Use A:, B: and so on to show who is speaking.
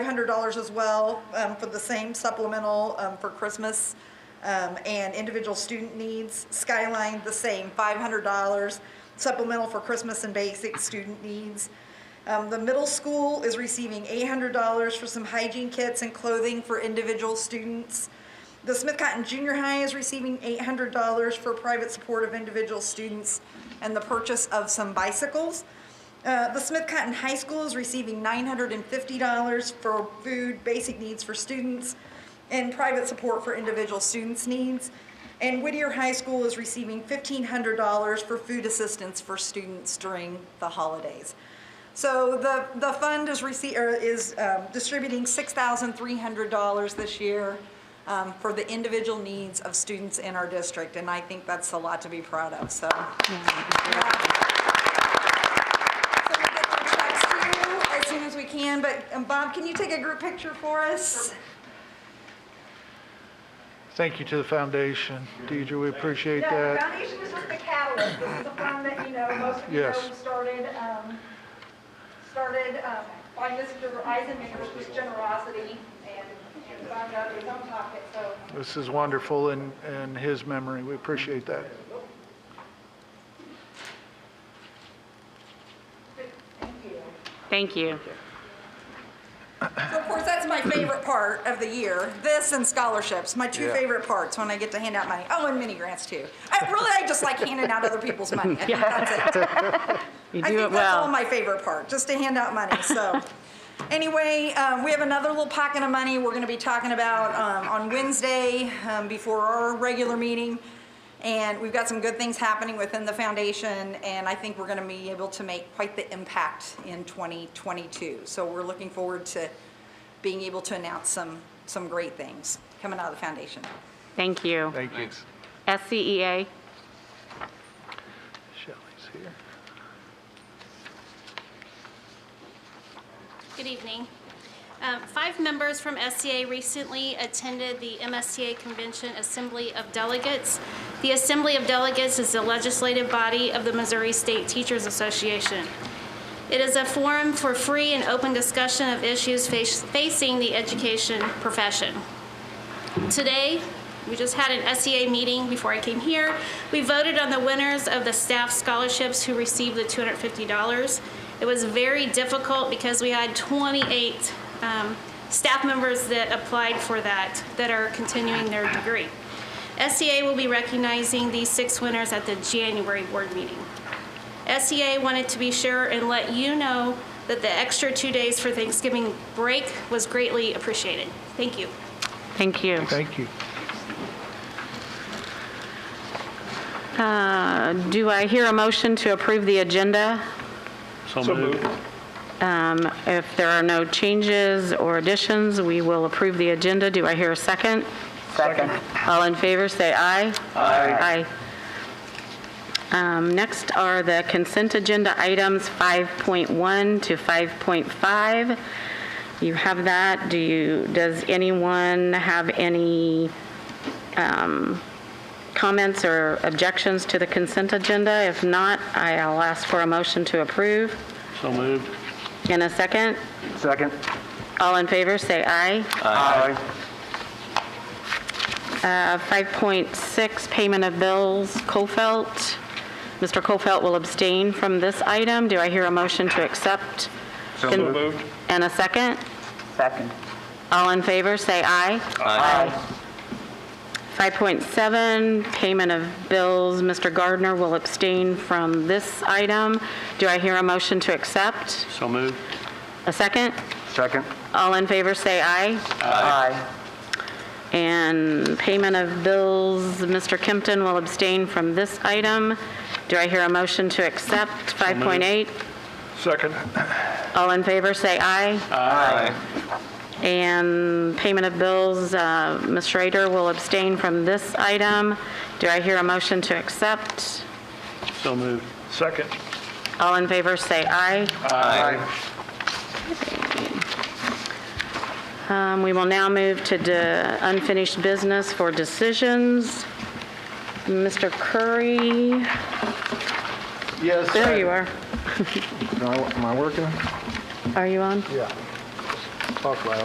A: $100 as well um, for the same supplemental um, for Christmas um, and individual student needs. Skyline, the same, $500 supplemental for Christmas and basic student needs. Um, The middle school is receiving $800 for some hygiene kits and clothing for individual students. The Smith Cotton Junior High is receiving $800 for private support of individual students and the purchase of some bicycles. Uh, the Smith Cotton High School is receiving $950 for food, basic needs for students, and private support for individual students' needs. And Whittier High School is receiving $1,500 for food assistance for students during the holidays. So the, the fund is rece or is um, distributing $6,300 this year um, for the individual needs of students in our district, and I think that's a lot to be proud of, so. So we'll get the checks to you as soon as we can, but um, Bob, can you take a group picture for us?
B: Thank you to the foundation. Deidre, we appreciate
C: No, the
B: that.
C: foundation was just the catalyst. This is the fund that, you know, most of you know
B: Yes.
C: started, um, started um, by Mr. Eisenman, which was generosity and and found out of his own pocket, so.
B: This is wonderful in, in his memory. We appreciate that.
D: Thank you.
A: So of course, that's my favorite part of the year, this and scholarships, my two
B: Yeah.
A: favorite parts, when I get to hand out money. Oh, and mini grants too. I, really, I just like handing out other people's money. I think that's it.
D: You
A: I
D: do
A: think
D: it
A: that's all
D: well.
A: my favorite part, just to hand out money, so. Anyway, um, we have another little pocket of money we're gonna be talking about, um, on Wednesday, um, before our regular meeting. And we've got some good things happening within the foundation, and I think we're gonna be able to make quite the impact in 2022. So we're looking forward to being able to announce some, some great things coming out of the foundation.
D: Thank you. E
B: Thank you.
D: SCEA,
B: Shelley's here.
E: Good evening. Um, Five members from SCA recently attended the MSTA Convention Assembly of Delegates. The Assembly of Delegates is the legislative body of the Missouri State Teachers Association. It is a forum for free and open discussion of issues face- facing the education profession. Today, we just had an SEA meeting before I came here. We voted on the winners of the staff scholarships who received the $250. It was very difficult because we had 28 um, staff members that applied for that, that are continuing their degree. SEA will be recognizing these six winners at the January board meeting. SEA wanted to be sure and let you know that the extra two days for Thanksgiving break was greatly appreciated. Thank you.
D: thank you.
B: Thank you.
D: Uh, Do I hear a motion to approve the agenda?
F: So moved.
D: Um, If there are no changes or additions, we will approve the agenda. Do I hear a second? Second. All in favor, say aye. Aye. Aye. Next are the consent agenda items 5.1 to 5.5. You have that. Do you, does anyone have any um, comments or objections to the consent agenda? If not, I'll ask for a motion to approve.
F: So moved.
D: In a second?
F: Second.
D: All in favor, say aye.
F: Aye.
D: Uh, 5.6, payment of bills, Kofelt. Mr. Kofelt will abstain from this item. Do I hear a motion to accept?
F: So
D: Con-
F: moved.
D: And a second?
G: Second.
D: All in favor, say aye.
G: Aye.
D: 5.7, payment of bills, Mr. Gardner will abstain from this item. Do I hear a motion to accept?
F: So moved.
D: A second?
F: Second.
D: All in favor, say aye.
G: Aye.
D: And payment of bills, Mr. Kempton will abstain from this item. Do I hear a motion to accept 5.8?
B: Second.
D: All in favor, say aye. Aye. And payment of bills, uh, Ms. Schrader will abstain from this item. Do I hear a motion to accept?
F: So moved. Second.
D: All in favor, say aye.
F: Aye.
D: Um, We will now move to de- unfinished business for decisions. Mr. Curry,
H: Yes.
D: there you are.
H: Am I working?
D: Are you on?
H: Yeah.
B: talk loud.